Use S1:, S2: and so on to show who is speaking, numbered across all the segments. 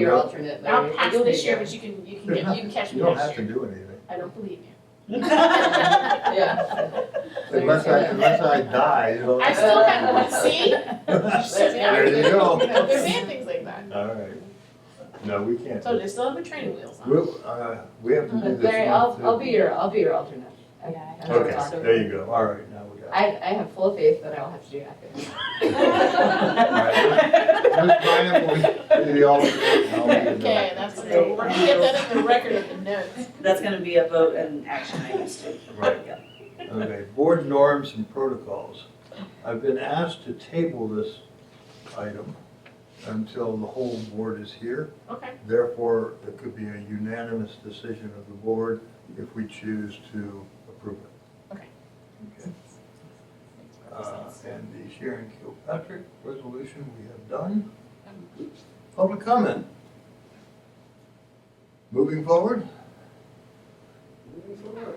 S1: Your alternate, Larry.
S2: I'll pass
S1: You'll be
S2: this year,
S1: there.
S2: but you can, you can get, you can catch
S3: You
S2: me
S3: don't have
S2: next
S3: to
S2: year.
S3: do anything.
S2: I don't believe you.
S1: Yeah.
S3: Unless I, unless I die, you know.
S2: I still have, see,
S3: There you go.
S2: they're saying things like that.
S3: All right. No, we can't.
S2: So they still have the training wheels on.
S3: We'll, uh, we have to do this.
S1: Larry, I'll,
S3: month,
S1: I'll
S3: too.
S1: be your, I'll be your alternate. I-
S4: Yeah, I-
S1: I'm
S3: Okay,
S1: sorry.
S3: there you go. All right, now we got it.
S1: I, I have full faith that I will have to do nothing.
S3: All right, Ms. Ms. Bynum will be the alternate. I'll be the-
S2: Okay, that's, what we're we're gonna get that in the record of the notes.
S4: That's gonna be a vote and action items too.
S3: Right. Okay, board norms and protocols. I've been asked to table this item until the whole board is here.
S2: Okay,
S3: Therefore, it could be a unanimous decision of the board if we choose to approve it.
S2: Okay.
S3: Okay. Uh, And the Sharon Kilpatrick resolution we have done. Public comment. Moving forward? Moving forward.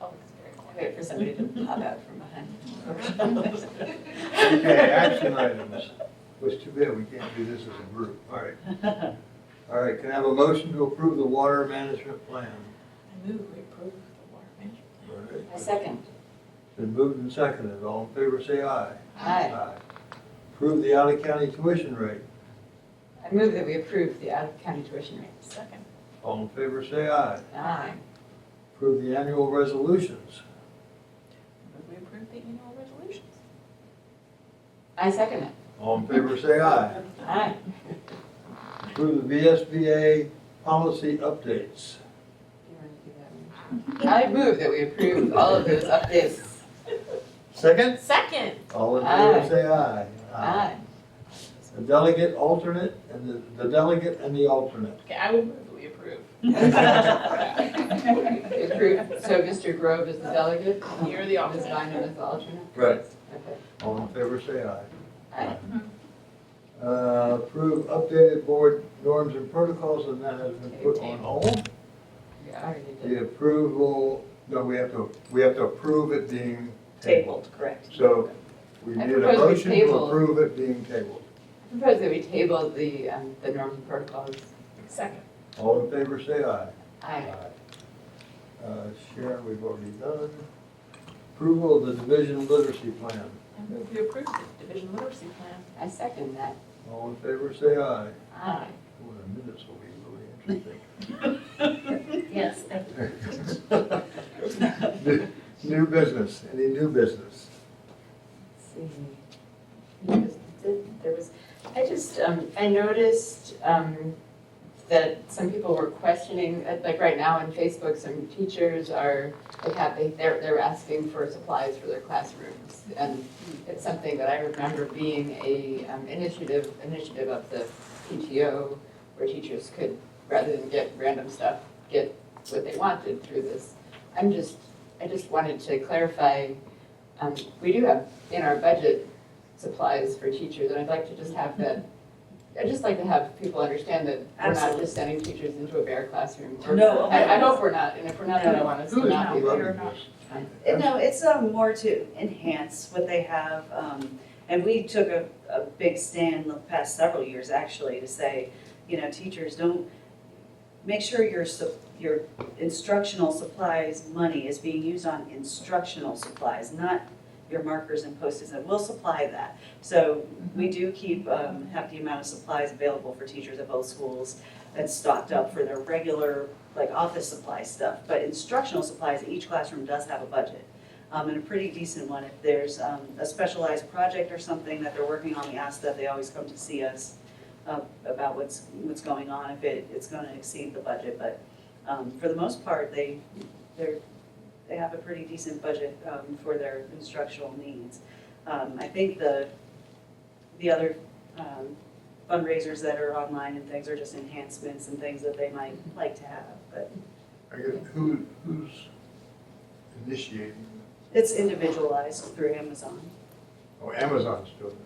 S2: oh, it's
S4: Wait for somebody to pop out from behind.
S3: Okay, action items. Was too bad we can't do this as a group. All right. All right, can I have a motion to approve the water management plan?
S2: very, I move we approve the water management.
S3: All right.
S4: I second.
S3: Been moved and seconded. All in favor, say aye.
S4: Aye.
S3: Approve the out-of-county tuition rate.
S1: I move that we approve the out-of-county tuition rate.
S2: Second,
S3: All in favor, say aye.
S1: Aye.
S3: Approve the annual resolutions.
S2: move we approve the annual resolutions.
S1: I second it.
S3: All in favor, say aye.
S1: Aye.
S3: Approve the VSBA policy updates.
S1: I move that we approve all of those updates.
S3: Second?
S2: Second,
S3: All in
S1: Aye.
S3: favor, say aye.
S1: Aye.
S3: The delegate alternate and the, the delegate and the alternate.
S2: okay, I will move that we approve.
S1: We Approve, so Mr. Grove is the delegate?
S2: You're the
S1: Ms.
S2: alternate.
S1: Bynum is the alternate?
S3: Right.
S1: Okay.
S3: All in favor, say aye.
S1: Aye.
S3: Uh, approve updated board norms and protocols, and that has been put on hold.
S1: We already did.
S3: The approval, no, we have to, we have to approve it being tabled.
S4: Tabled, correct.
S3: So we
S1: I
S3: need a
S1: propose we
S3: motion to
S1: table.
S3: approve it being tabled.
S1: I propose that we table the, um, the norms and protocols.
S2: Second,
S3: All in favor, say aye.
S1: Aye.
S3: Uh, Sharon, we've already done. Approval of the division literacy plan.
S2: I move we approve the division literacy plan.
S1: I second that.
S3: All in favor, say aye.
S1: Aye.
S3: Well, the minutes will be really
S4: Yes, thank
S3: interesting. New- New business, any new business?
S4: you.
S1: There was, I just, um, I noticed, um, that some people were questioning, uh, like right now on Facebook, some teachers are, they have, they, they're, they're asking for supplies for their classrooms. And it's something that I remember being a, um, initiative, initiative of the PTO, where teachers could, rather than get random stuff, get what they wanted through this. I'm just, I just wanted to clarify, um, we do have in our budget supplies for teachers, and I'd like to just have that, I'd just like to have people understand that we're not
S4: Absolutely.
S1: just sending teachers into a bare classroom. We're-
S4: No.
S1: I, I hope we're not, and if we're not, I don't want us
S3: Who
S1: to
S3: is
S1: not be.
S3: loving
S1: there.
S4: or not.
S3: this?
S4: Uh, No, it's um, more to enhance what they have. um, And we took a, a big stand the past several years, actually, to say, you know, teachers, don't, make sure your, sup- your instructional supplies money is being used on instructional supplies, not your markers and post-its, and we'll supply that. So we do keep, um, have the amount of supplies available for teachers at both schools that's stocked up for their regular, like, office supply stuff. But instructional supplies, each classroom does have a budget, um, and a pretty decent one. If there's, um, a specialized project or something that they're working on, we ask that they always come to see us uh, about what's, what's going on, if it, it's gonna exceed the budget, but, um, for the most part, they, they're, they have a pretty decent budget, um, for their instructional needs. Um, I think the, the other, um, fundraisers that are online and things are just enhancements and things that they might like to have, but
S3: I guess, who, who's initiating?
S4: it's individualized through Amazon.
S3: Oh, Amazon's doing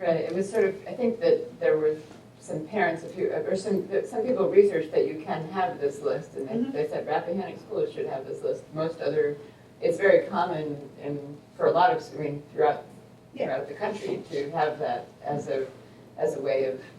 S1: Right, it was sort of, I think that there were some parents, if you, or some, that some people researched that you can have this list, and
S4: Mhm.
S1: they, they said Rappahannock schools should have this list. Most other, it's very common in, for a lot of, I mean, throughout,
S4: Yeah.
S1: throughout the country to have that as a, as a way of